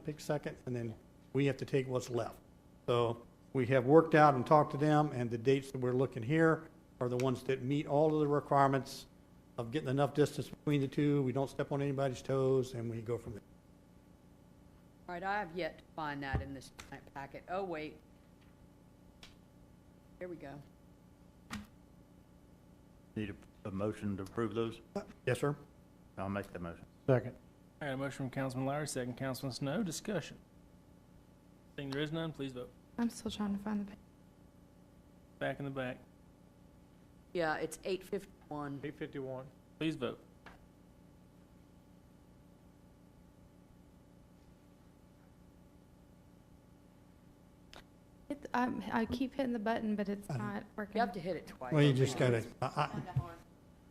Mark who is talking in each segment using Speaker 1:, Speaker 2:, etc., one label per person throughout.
Speaker 1: take second, and then we have to take what's left. So we have worked out and talked to them, and the dates that we're looking here are the ones that meet all of the requirements of getting enough distance between the two, we don't step on anybody's toes, and we go from there.
Speaker 2: All right, I have yet to find that in this tonight packet. Oh, wait. Here we go.
Speaker 3: Need a, a motion to approve those?
Speaker 1: Yes, sir?
Speaker 3: I'll make the motion.
Speaker 1: Second.
Speaker 4: I got a motion from Councilman Lowry, second Councilman Snow. Discussion. Seeing there is none, please vote.
Speaker 5: I'm still trying to find the page.
Speaker 4: Back in the back.
Speaker 2: Yeah, it's eight fifty-one.
Speaker 6: Eight fifty-one.
Speaker 4: Please vote.
Speaker 5: Hit the- I'm- I keep hitting the button, but it's
Speaker 1: Um,
Speaker 5: not
Speaker 2: You
Speaker 5: working.
Speaker 2: have to hit it twice.
Speaker 1: Well, you just gotta, I, I,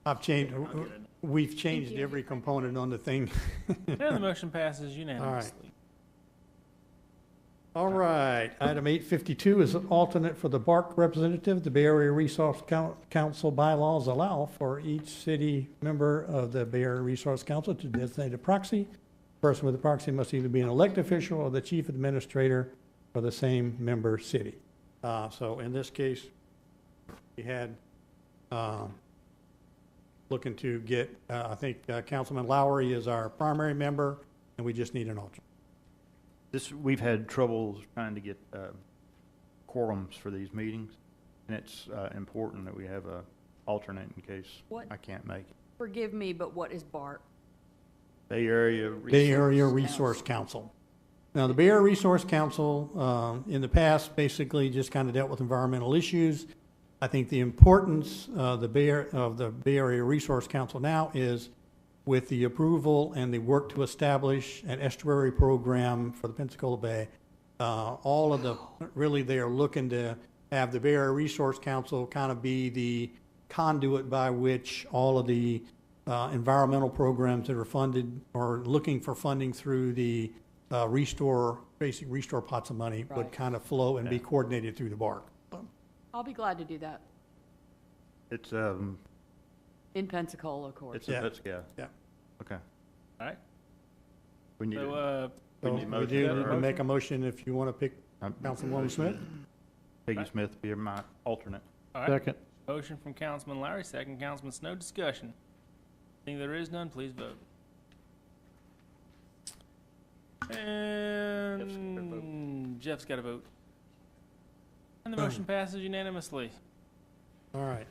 Speaker 1: I've changed,
Speaker 4: I'll get it.
Speaker 1: we've changed
Speaker 5: you.
Speaker 1: every component on the thing.
Speaker 4: And the motion passes unanimously.
Speaker 1: All right, item eight fifty-two is an alternate for the BARC representative. The Bay Area Resource Coun- Council bylaws allow for each city member of the Bay Area Resource Council to designate a proxy. Person with the proxy must either be an elected official or the chief administrator for the same member city. Uh, so in this case, we had, um, looking to get, uh, I think uh, Councilman Lowry is our primary member, and we just need an alternate.
Speaker 3: This, we've had troubles trying to get, uh, quorums for these meetings, and it's, uh, important that we have a alternate in case
Speaker 2: What?
Speaker 3: I can't make it.
Speaker 2: Forgive me, but what is BART?
Speaker 3: Bay Area.
Speaker 1: Bay Area
Speaker 3: Resource
Speaker 1: Resource Council. Now, the Bay Area Resource Council, um, in the past, basically just kind of dealt with environmental issues. I think the importance of the Bay, Ar- of the Bay Area Resource Council now is with the approval and the work to establish an estuary program for the Pensacola Bay. Uh, all of the, really, they are looking to have the Bay Area Resource Council kind of be the conduit by which all of the, uh, environmental programs that are funded or looking for funding through the, uh, restore, basic restore pots of money would
Speaker 2: Right.
Speaker 1: kind of flow and be
Speaker 3: Yeah.
Speaker 1: coordinated through the BARC.
Speaker 2: I'll be glad to do that,
Speaker 3: It's, um,
Speaker 2: in Pensacola, of course.
Speaker 3: it's, a-
Speaker 1: Yeah.
Speaker 3: that's, yeah.
Speaker 1: Yeah.
Speaker 3: Okay.
Speaker 4: All right.
Speaker 3: We need,
Speaker 4: So,
Speaker 3: a-
Speaker 4: uh,
Speaker 3: we
Speaker 1: So
Speaker 3: need a
Speaker 1: would
Speaker 3: motion.
Speaker 1: you
Speaker 4: Is
Speaker 1: need
Speaker 4: that
Speaker 3: for-
Speaker 4: a
Speaker 1: to make a motion if you want to pick
Speaker 3: um,
Speaker 1: Councilwoman Smith?
Speaker 3: Peggy Smith be my alternate.
Speaker 4: all right.
Speaker 1: Second.
Speaker 4: Motion from Councilman Lowry, second Councilman Snow. Discussion. Seeing there is none, please vote. And Jeff's got a vote. And the motion passes unanimously.
Speaker 1: All right.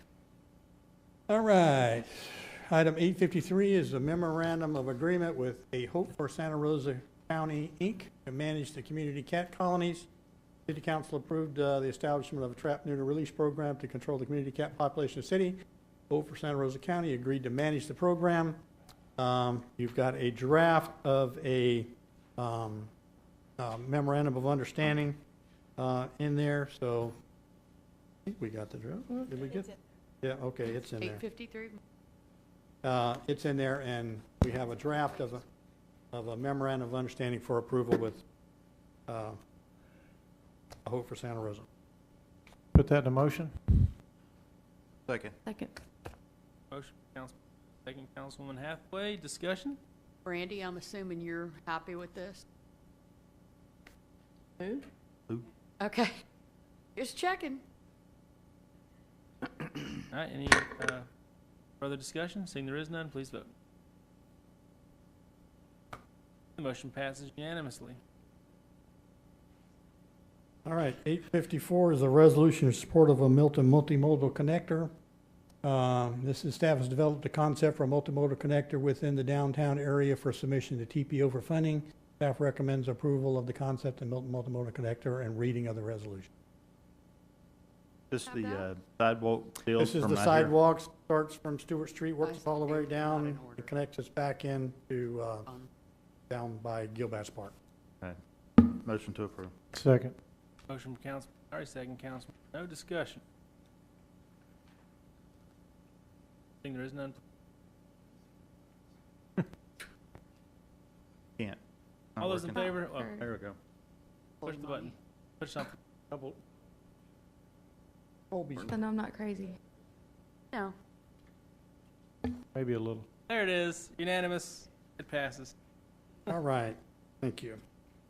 Speaker 1: All right. Item eight fifty-three is a memorandum of agreement with A Hope for Santa Rosa County, Inc. to manage the community cat colonies. City Council approved uh, the establishment of a trap neuter release program to control the community cat population of the city. Hope for Santa Rosa County agreed to manage the program. Um, You've got a draft of a um, uh, memorandum of understanding uh, in there, so I think we got the draft. Did we get? Yeah, okay, it's in there.
Speaker 2: Eight fifty-three?
Speaker 1: Uh, It's in there, and we have a draft of a, of a memorandum of understanding for approval with uh, I Hope for Santa Rosa.
Speaker 7: Put that in a motion?
Speaker 3: Second.
Speaker 5: Second.
Speaker 4: Motion, Council, second Councilwoman Hathaway. Discussion.
Speaker 2: Brandy, I'm assuming you're happy with this? Who?
Speaker 3: Who?
Speaker 2: Okay, just checking.
Speaker 4: All right, any uh, further discussion? Seeing there is none, please vote. The motion passes unanimously.
Speaker 1: All right, eight fifty-four is a resolution in support of a Milton multimodal connector. Um, This is staff has developed a concept for a multimodal connector within the downtown area for submission to TPO for funding. Staff recommends approval of the concept of Milton multimodal connector and reading of the resolution.
Speaker 3: This
Speaker 2: How
Speaker 3: the
Speaker 2: about-
Speaker 3: uh, sidewalk deal
Speaker 1: This
Speaker 3: from
Speaker 1: is
Speaker 3: out
Speaker 1: the
Speaker 3: here.
Speaker 1: sidewalks, starts from Stewart Street, works all the way
Speaker 2: It's not in
Speaker 1: down,
Speaker 2: order.
Speaker 1: it connects us back in to, uh,
Speaker 2: Um,
Speaker 1: down by Gilbass Park.
Speaker 3: Motion to approve.
Speaker 7: Second.
Speaker 4: Motion from Council, all right, second Council, no discussion. Seeing there is none,
Speaker 3: Can't. Not
Speaker 4: all those in
Speaker 3: working.
Speaker 4: favor, oh,
Speaker 5: Or-
Speaker 3: There we go.
Speaker 2: hold
Speaker 4: Push the
Speaker 2: money.
Speaker 4: push something.
Speaker 6: Double,
Speaker 1: Colby's
Speaker 5: Then I'm not crazy.
Speaker 2: No,
Speaker 7: Maybe a little.
Speaker 4: There it is, unanimous, it passes.
Speaker 1: All right, thank you.